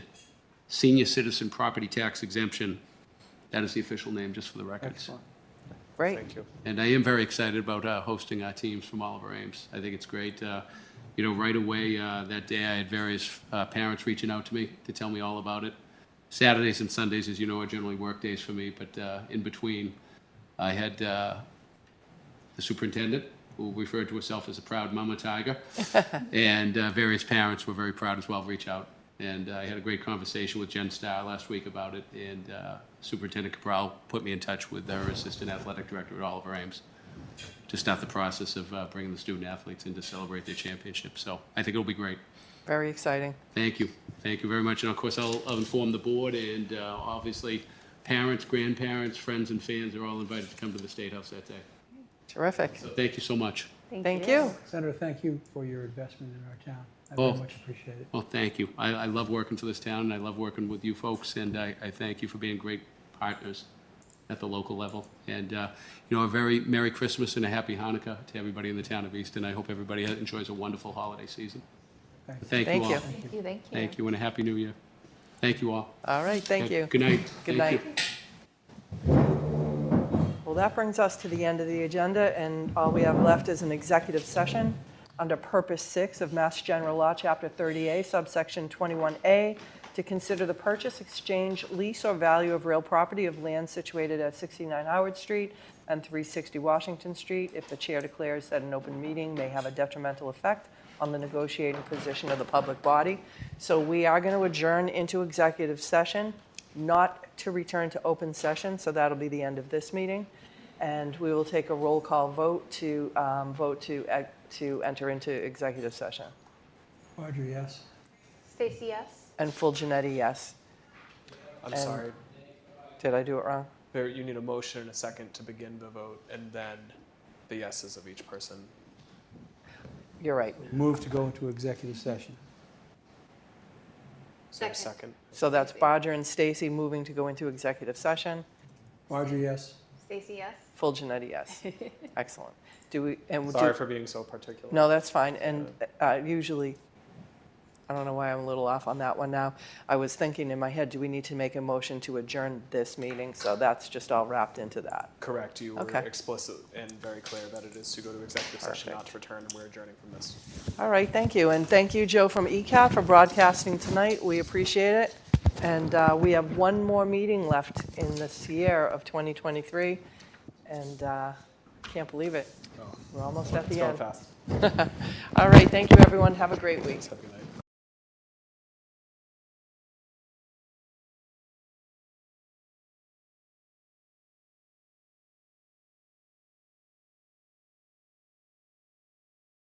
Senior Citizen Property Tax Exemption. That is the official name, just for the records. Excellent. Great. Thank you. And I am very excited about uh, hosting our teams from all of our Ames. I think it's great. Uh, You know, right away, uh, that day, I had various uh, parents reaching out to me to tell me all about it. Saturdays and Sundays, as you know, are generally work days for me, but uh, in between, I had uh, the superintendent, who referred to herself as a proud mama tiger, and uh, various parents were very proud as well, reach out. And uh, I had a great conversation with Jen Starr last week about it, and uh, Superintendent Cabral put me in touch with her assistant athletic director at Oliver Ames to start the process of uh, bringing the student athletes in to celebrate their championship. So I think it'll be great. Very exciting. Thank you. Thank you very much. And of course, I'll I'll inform the board and uh, obviously parents, grandparents, friends, and fans are all invited to come to the State House that day. Terrific. So thank you so much. Thank you. Senator, thank you for your investment in our town. I Oh. very much appreciate it. Well, thank you. I, I love working for this town, and I love working with you folks, and I, I thank you for being great partners at the local level. And, uh, you know, a very Merry Christmas and a Happy Hanukkah to everybody in the town of Easton. I hope everybody enjoys a wonderful holiday season. Thank you. Thank you Thank you. all. Thank you, thank you. Thank you, and a Happy New Year. Thank you all. All right, thank you. Good night. Good Thank you. night. Well, that brings us to the end of the agenda, and all we have left is an executive session under Purpose 6 of Mass General Law, Chapter 30A, subsection 21A, to consider the purchase, exchange, lease, or value of real property of land situated at 69 Howard Street and 360 Washington Street if the chair declares that an open meeting may have a detrimental effect on the negotiating position of the public body. So we are going to adjourn into executive session, not to return to open session, so that'll be the end of this meeting. And we will take a roll call vote to, um, vote to, e- to enter into executive session. Audrey, yes? Stacy, yes? And full Janetti, yes. I'm And- sorry. Did I do it wrong? There, you need a motion and a second to begin the vote, and then the yeses of each person. You're right. Move to go into executive session. Is there a Second. second? So that's Bodger and Stacy moving to go into executive session. Audrey, yes? Stacy, yes? Full Janetti, yes. Excellent. Do we, and we do. Sorry for being so particular. No, that's fine, and uh, usually, I don't know why I'm a little off on that one now. I was thinking in my head, do we need to make a motion to adjourn this meeting? So that's just all wrapped into that. Correct, you were Okay. explicit and very clear that it is to go to executive session, Perfect. not to return, and we're adjourning from this. All right, thank you, and thank you, Joe from E ECAT, for broadcasting tonight. We appreciate it. And uh, we have one more meeting left in this year of 2023, and uh, can't believe it. We're almost at the It's end. going fast. All right, thank you, everyone. Have a great week. Have a good night.